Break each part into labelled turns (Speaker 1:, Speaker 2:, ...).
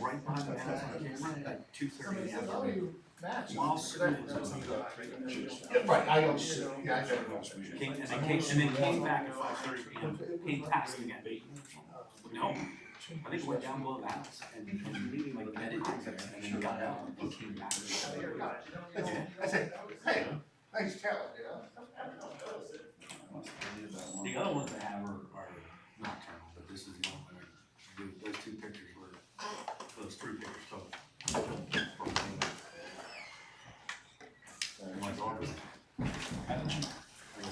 Speaker 1: right behind the house on camera at two
Speaker 2: Somebody
Speaker 1: thirty.
Speaker 2: says, oh, you match.
Speaker 1: While sitting in
Speaker 2: That's
Speaker 1: the-
Speaker 2: not-
Speaker 3: Yeah, Right, I don't, sit- yeah, I never know.
Speaker 1: Came, and then came, and then came back at five thirty P M, paid tax again. No, I think went down below the house and, and like bedded and then got out and came back.
Speaker 3: That's it, I said, hey, nice talent, you know?
Speaker 1: The other ones I have are, are nocturnal, but this is the one where, those- those two pictures were, those three pictures total. My daughter's, I had a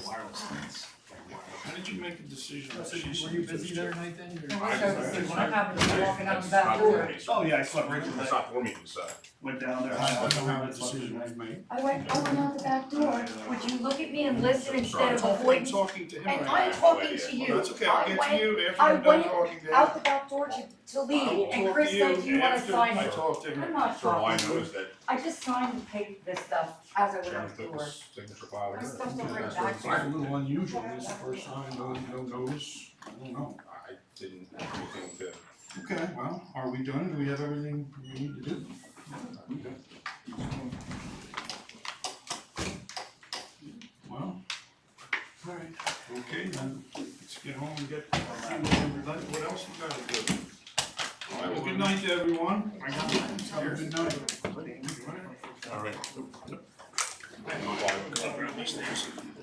Speaker 1: wireless fence, like wireless.
Speaker 4: How did you make a decision?
Speaker 2: Oh,
Speaker 4: that
Speaker 2: so
Speaker 4: she's-
Speaker 2: you- Were you busy there at night then?
Speaker 5: No,
Speaker 2: or-
Speaker 5: I said, see, when I happened to be walking out the back door,
Speaker 6: Oh, yeah, I slept right from
Speaker 7: That's
Speaker 6: that,
Speaker 7: not for me, so.
Speaker 6: went down there,
Speaker 4: I
Speaker 6: I
Speaker 4: don't know how
Speaker 6: know
Speaker 4: the
Speaker 6: what decision
Speaker 4: decision
Speaker 6: I
Speaker 4: was made.
Speaker 5: I went, I went out the back door, would you look at me and listen instead of avoiding?
Speaker 4: talking to him
Speaker 5: And
Speaker 4: right
Speaker 5: I'm
Speaker 4: now.
Speaker 5: talking to
Speaker 4: Well,
Speaker 5: you,
Speaker 4: that's okay, I'll
Speaker 5: I
Speaker 4: get to
Speaker 5: went
Speaker 4: you
Speaker 5: I
Speaker 4: after I'm done
Speaker 5: went
Speaker 4: talking to him.
Speaker 5: out the back door to, to leave,
Speaker 4: I'll
Speaker 5: and
Speaker 4: talk
Speaker 5: Chris
Speaker 4: to
Speaker 5: said, do you wanna
Speaker 4: after
Speaker 5: sign
Speaker 4: I
Speaker 5: it?
Speaker 4: talk to
Speaker 5: I'm
Speaker 4: him.
Speaker 5: not
Speaker 7: So all I
Speaker 5: talking,
Speaker 7: know is that
Speaker 5: I just signed and paid this stuff as I went
Speaker 7: Sharon
Speaker 5: out the
Speaker 7: took
Speaker 5: door.
Speaker 7: his signature file.
Speaker 5: I'm
Speaker 7: here.
Speaker 5: still gonna bring it
Speaker 7: That's what
Speaker 5: back to
Speaker 7: I'm
Speaker 4: It's a
Speaker 7: saying.
Speaker 4: little unusual, it's the first time, no, no notice, I don't know.
Speaker 7: I didn't have anything to.
Speaker 4: Okay, well, are we done? Do we have everything we need to do? Okay. Well, all right, okay, then, let's get home and get, everybody, what else we gotta do? All right, well, good night to everyone. Have a good night.
Speaker 7: All right.